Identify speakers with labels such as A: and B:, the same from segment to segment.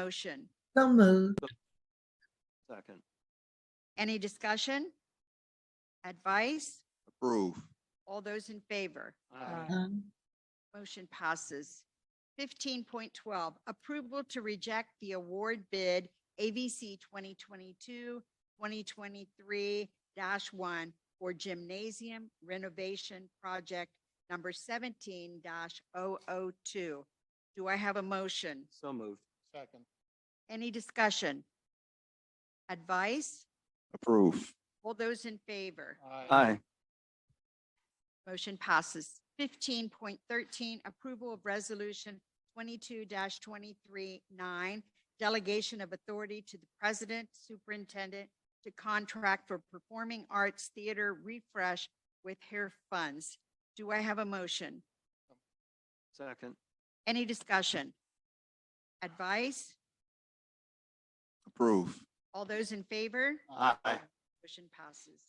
A: motion?
B: So moved.
C: Second.
A: Any discussion? Advice?
C: Approve.
A: All those in favor?
B: Um,
A: Motion passes. Fifteen point twelve, approval to reject the award bid AVC 2022-2023 one for gymnasium renovation project number seventeen 2 Do I have a motion?
C: So moved.
D: Second.
A: Any discussion? Advice?
C: Approve.
A: All those in favor?
C: Aye.
A: Motion passes. Fifteen point thirteen, approval of resolution twenty-two 239 delegation of authority to the president, superintendent to contract for performing arts theater refresh with hair funds. Do I have a motion?
C: Second.
A: Any discussion? Advice?
C: Approve.
A: All those in favor?
C: Aye.
A: Motion passes.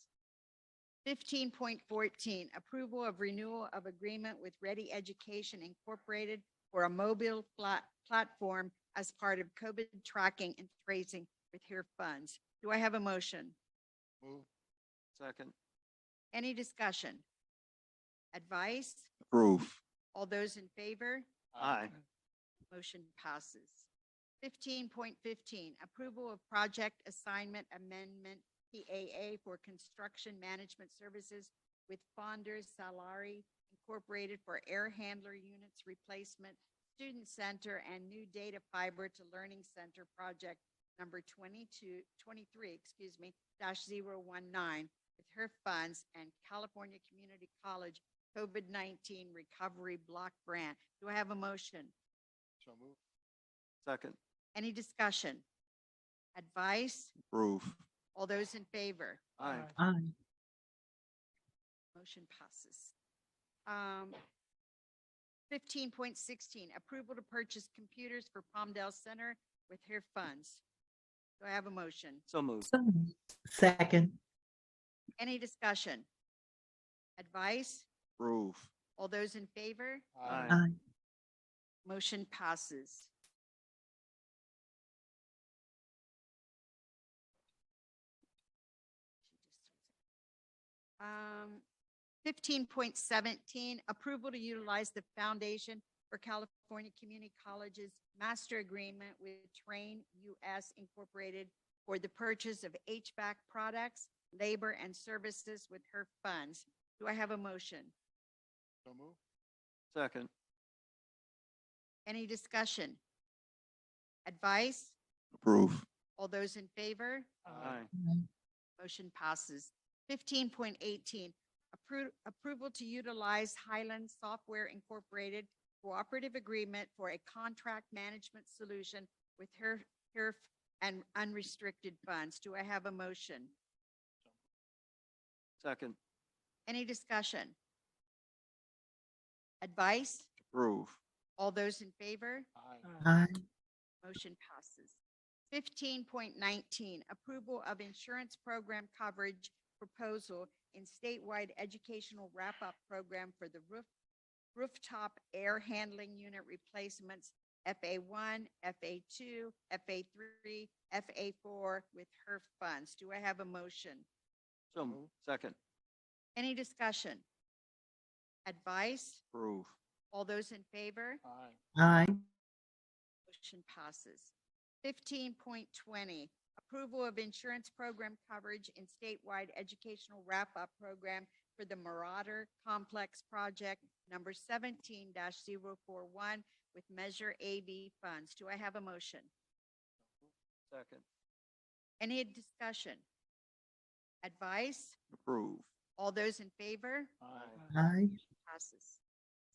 A: Fifteen point fourteen, approval of renewal of agreement with Ready Education Incorporated for a mobile plat- platform as part of COVID tracking and tracing with HERE funds. Do I have a motion?
D: Move.
C: Second.
A: Any discussion? Advice?
C: Approve.
A: All those in favor?
C: Aye.
A: Motion passes. Fifteen point fifteen, approval of project assignment amendment PAA for construction management services with Fonders Salari Incorporated for air handler units replacement, student center and new data fiber to learning center project number 22 23, excuse me, dash zero one nine with her funds and California Community College COVID nineteen recovery block grant. Do I have a motion?
D: So move.
C: Second.
A: Any discussion? Advice?
C: Approve.
A: All those in favor?
C: Aye.
B: aye.
A: Motion passes. Um, fifteen point sixteen, approval to purchase computers for Palmdale Center with HERE funds. Do I have a motion?
C: So moved.
B: So moved. Second,
A: Any discussion? Advice?
C: Approve.
A: All those in favor?
C: Aye.
B: aye.
A: Motion passes. Um, fifteen point seventeen, approval to utilize the Foundation for California Community Colleges Master Agreement with Train US Incorporated for the purchase of HVAC products, labor and services with her funds. Do I have a motion?
D: So move.
C: Second.
A: Any discussion? Advice?
C: Approve.
A: All those in favor?
C: Aye.
B: Aye.
A: Motion passes. Fifteen point eighteen, approval to utilize Highland Software Incorporated Cooperative Agreement for a Contract Management Solution with HERF HERF and unrestricted funds. Do I have a motion?
C: Second.
A: Any discussion? Advice?
C: Approve.
A: All those in favor?
D: Aye.
B: Aye.
A: Motion passes. Fifteen point nineteen, approval of insurance program coverage proposal in statewide educational wrap-up program for the roof, rooftop air handling unit replacements, FA one, FA two, FA three, FA four with HERF funds. Do I have a motion?
C: So moved. Second.
A: Any discussion? Advice?
C: Approve.
A: All those in favor?
D: Aye.
B: Aye.
A: Motion passes. Fifteen point twenty, approval of insurance program coverage in statewide educational wrap-up program for the Marauder Complex Project number seventeen 41 with Measure AB funds. Do I have a motion?
C: Second.
A: Any discussion? Advice?
C: Approve.
A: All those in favor?
D: Aye.
B: Aye.
A: passes.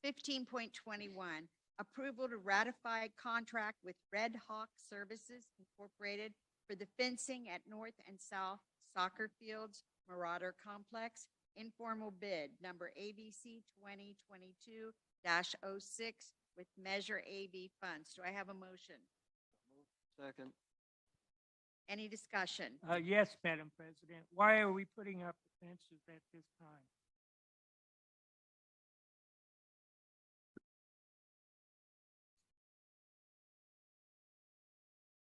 A: Fifteen point twenty-one, approval to ratify contract with Red Hawk Services Incorporated for the fencing at North and South Soccer Fields Marauder Complex, informal bid number ABC twenty twenty-two 6 with Measure AB funds. Do I have a motion?
C: Second.
A: Any discussion?
E: Uh, yes, Madam President. Why are we putting up the fences at this time?